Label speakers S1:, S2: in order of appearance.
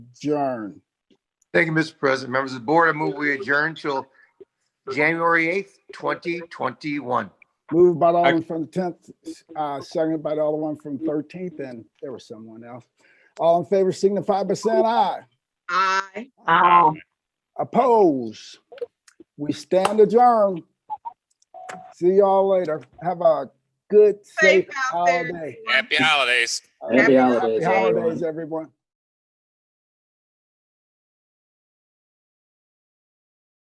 S1: adjourn.
S2: Thank you, Mr. President. Members of the board, I move we adjourn till January 8th, 2021.
S1: Moved by the Alderman from the tenth, uh, seconded by the Alderman from thirteenth, and there was someone else. All in favor signify by saying aye.
S3: Aye.
S4: Aye.
S1: Oppose. We stand adjourned. See y'all later. Have a good, safe
S3: Safe out there.
S1: holiday.
S5: É, Happy holidays.
S3: Happy
S1: Happy
S3: holidays.
S1: holidays, everyone.